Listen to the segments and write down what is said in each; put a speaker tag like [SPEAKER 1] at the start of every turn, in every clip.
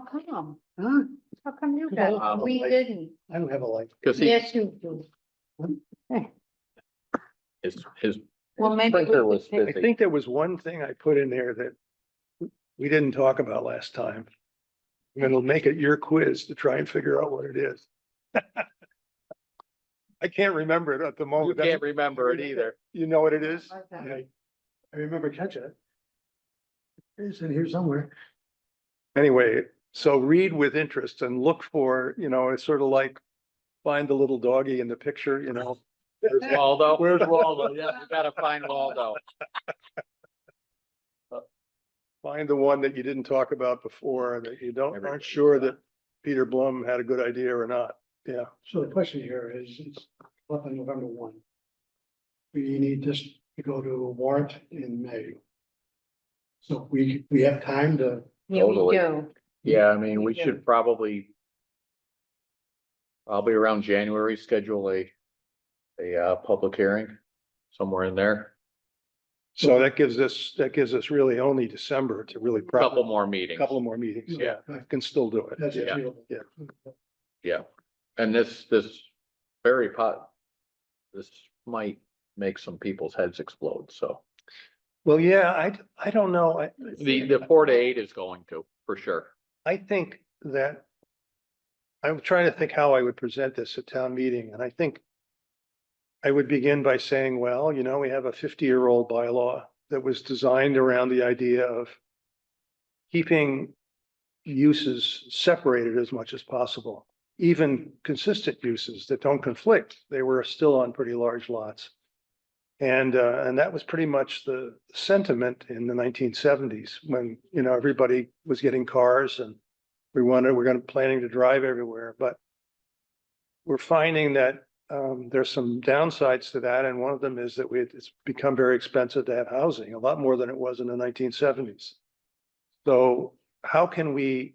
[SPEAKER 1] come?
[SPEAKER 2] Huh?
[SPEAKER 1] How come you
[SPEAKER 2] Because I don't
[SPEAKER 1] got,
[SPEAKER 2] have
[SPEAKER 1] it?
[SPEAKER 2] a
[SPEAKER 1] we
[SPEAKER 2] light.
[SPEAKER 1] didn't?
[SPEAKER 2] I don't have a life.
[SPEAKER 3] Cause he,
[SPEAKER 1] Yes, you do.
[SPEAKER 3] his, his
[SPEAKER 1] Well, maybe. we
[SPEAKER 3] printer
[SPEAKER 1] could
[SPEAKER 3] was
[SPEAKER 1] take-
[SPEAKER 2] I
[SPEAKER 3] busy.
[SPEAKER 2] think there was one thing I put in there that we didn't talk about last time. And it'll make it your quiz to try and figure out what it is. I can't remember it at the
[SPEAKER 3] You
[SPEAKER 2] moment.
[SPEAKER 3] can't remember it either.
[SPEAKER 2] You know what it is?
[SPEAKER 1] Like that.
[SPEAKER 2] Yeah, I remember catching it. It's in here somewhere. Anyway, so read with interest and look for, you know, it's sort of like find the little doggy in the picture, you know.
[SPEAKER 3] Where's Waldo?
[SPEAKER 2] Where's
[SPEAKER 3] Waldo? Yeah, we gotta find Waldo.
[SPEAKER 2] Find the one that you didn't talk about before, that you don't,
[SPEAKER 3] Everybody
[SPEAKER 2] aren't sure
[SPEAKER 3] does.
[SPEAKER 2] that Peter Blum had a good idea or not. Yeah,
[SPEAKER 4] So the question here is, it's up on November one. We need this to go to a warrant in May. So we, we have time to,
[SPEAKER 1] Yeah, we
[SPEAKER 3] Totally.
[SPEAKER 1] do.
[SPEAKER 3] Yeah, I mean, we
[SPEAKER 1] Yeah.
[SPEAKER 3] should probably. Probably around January, schedule a, a, uh, public hearing somewhere in there.
[SPEAKER 2] so that gives us, that gives us really only December to really. prep-
[SPEAKER 3] Couple more meetings.
[SPEAKER 2] Couple more meetings, yeah,
[SPEAKER 4] Yeah.
[SPEAKER 2] can still do it.
[SPEAKER 4] that's
[SPEAKER 3] Yeah.
[SPEAKER 4] achievable.
[SPEAKER 2] Yeah.
[SPEAKER 3] Yeah, and this, this very pot, this might make some people's heads explode, so.
[SPEAKER 2] Well, yeah, I, d- I don't know, I,
[SPEAKER 3] The, the four to eight is going to, for sure.
[SPEAKER 2] I think that. I'm trying to think how I would present this at town meeting, and I think. I would begin by saying, well, you know, we have a fifty-year-old bylaw that was designed around the idea of. Keeping uses separated as much as possible, even consistent uses that don't conflict. They were still on pretty large lots. And, uh, and that was pretty much the sentiment in the nineteen seventies when, you know, everybody was getting cars and we wanted, we're gonna, planning to drive everywhere, but we're finding that, um, there's some downsides to that. And one of them is that we, it's become very expensive to have housing, a lot more than it was in the nineteen seventies. So how can we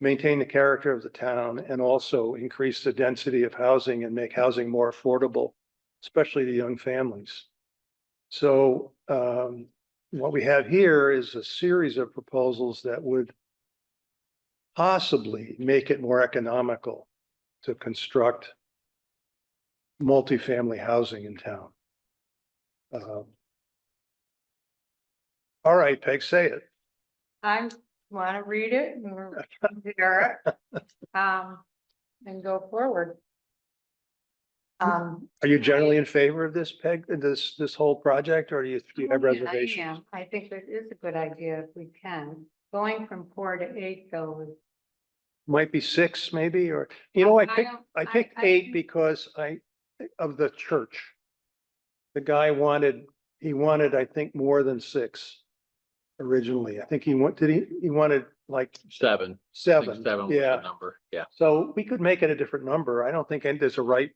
[SPEAKER 2] maintain the character of the town and also increase the density of housing and make housing more affordable? especially to young families. So um, what we have here is a series of proposals that would possibly make it more economical to construct multifamily housing in town. Um, All right, Peg, say it.
[SPEAKER 1] I want to read it and we're- hear it, um, and go forward. Um,
[SPEAKER 2] Are you generally in favor of this, Peg, this, this whole project, or do you do you have
[SPEAKER 1] Oh, yeah, I
[SPEAKER 2] reservations?
[SPEAKER 1] am. I think it is a good idea if we can. Going from four to eight though. is-
[SPEAKER 2] Might be six, maybe, or, you know, I picked
[SPEAKER 1] don't-
[SPEAKER 2] I picked eight
[SPEAKER 1] think-
[SPEAKER 2] because I, of the church. The guy wanted, he wanted, I think, more than six originally. I think he want, did he, he wanted like
[SPEAKER 3] Seven. I think
[SPEAKER 2] seven.
[SPEAKER 3] Seven was the
[SPEAKER 2] Yeah,
[SPEAKER 3] number, yeah.
[SPEAKER 2] so we could make it a different number. I don't think any- there's a right,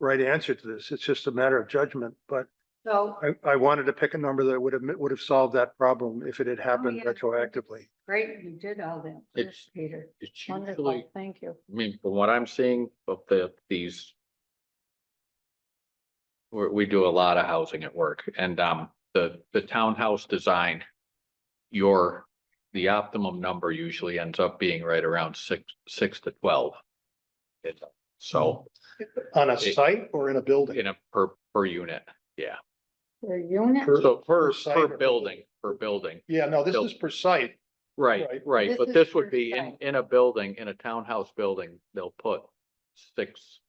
[SPEAKER 2] right answer to this. It's just a matter of judgment, but
[SPEAKER 1] So,
[SPEAKER 2] I, I wanted to pick a number that would have, would have solved that problem if it had happened
[SPEAKER 1] yeah.
[SPEAKER 2] retroactively.
[SPEAKER 1] great, you did all that, for us,
[SPEAKER 3] It's-
[SPEAKER 1] Peter.
[SPEAKER 3] It's usually,
[SPEAKER 1] Wonderful, thank you.
[SPEAKER 3] I mean, from what I'm seeing of the, these. We, we do a lot of housing at work and, um, the, the townhouse design. Your, the optimum number usually ends up being right around six, six to twelve. It, so
[SPEAKER 2] On a
[SPEAKER 3] It-
[SPEAKER 2] site or in a building?
[SPEAKER 3] in a per, per unit,
[SPEAKER 1] Your unit,
[SPEAKER 2] Per-
[SPEAKER 3] so per,
[SPEAKER 2] per site
[SPEAKER 3] per
[SPEAKER 2] or per
[SPEAKER 3] building,
[SPEAKER 2] building?
[SPEAKER 3] per building.
[SPEAKER 2] Yeah, no, this
[SPEAKER 3] Build-
[SPEAKER 2] is per site.
[SPEAKER 3] Right,
[SPEAKER 2] Right.
[SPEAKER 3] right,
[SPEAKER 1] This
[SPEAKER 3] but
[SPEAKER 1] is
[SPEAKER 3] this
[SPEAKER 1] per
[SPEAKER 3] would be in,
[SPEAKER 1] site.
[SPEAKER 3] in a building, in a townhouse building, they'll put six,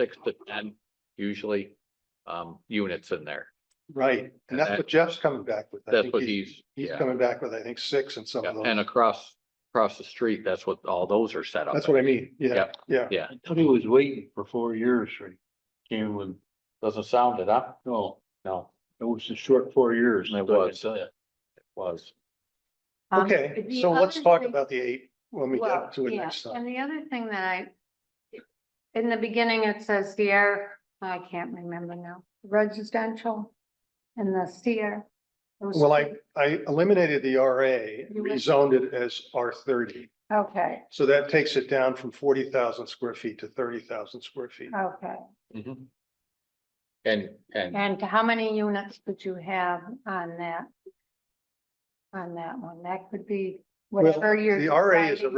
[SPEAKER 3] six to ten usually, um, units in there.
[SPEAKER 2] Right,
[SPEAKER 3] And
[SPEAKER 2] and that's
[SPEAKER 3] that-
[SPEAKER 2] what Jeff's coming back with. I
[SPEAKER 3] Uh, That's
[SPEAKER 2] think
[SPEAKER 3] what he's,
[SPEAKER 2] He's
[SPEAKER 3] yeah,
[SPEAKER 2] coming back with, I think, six and some
[SPEAKER 3] yeah,
[SPEAKER 2] of those.
[SPEAKER 3] and across, across the street, that's what all those are set up.
[SPEAKER 2] That's what I mean, yeah,
[SPEAKER 3] Yeah.
[SPEAKER 2] yeah.
[SPEAKER 3] Yeah,
[SPEAKER 5] Tony was waiting for four years, right? Came with,
[SPEAKER 3] doesn't sound it up,
[SPEAKER 5] no,
[SPEAKER 3] no,
[SPEAKER 5] it was a short four years.
[SPEAKER 3] It
[SPEAKER 5] I can
[SPEAKER 3] was.
[SPEAKER 5] tell ya.
[SPEAKER 3] was,
[SPEAKER 1] um,
[SPEAKER 2] Okay,
[SPEAKER 1] the
[SPEAKER 2] so let's
[SPEAKER 1] other
[SPEAKER 2] talk
[SPEAKER 1] thing-
[SPEAKER 2] about the eight when we
[SPEAKER 1] Well,
[SPEAKER 2] get to it
[SPEAKER 1] yeah,
[SPEAKER 2] next time.
[SPEAKER 1] And the other thing that I, in the beginning, it says the air, I can't remember now, residential and the CR.
[SPEAKER 2] Well, I, I eliminated the RA,
[SPEAKER 1] You went-
[SPEAKER 2] rezoned it as R thirty.
[SPEAKER 1] Okay,
[SPEAKER 2] So that takes it down from forty thousand square feet to thirty thousand square feet.
[SPEAKER 1] okay.
[SPEAKER 5] Mm-hmm.
[SPEAKER 3] Mhm. And, and
[SPEAKER 1] And how many units would you have on that? On that one? That could be
[SPEAKER 2] Well,
[SPEAKER 1] whatever you're.
[SPEAKER 2] the RA is a
[SPEAKER 1] deciding.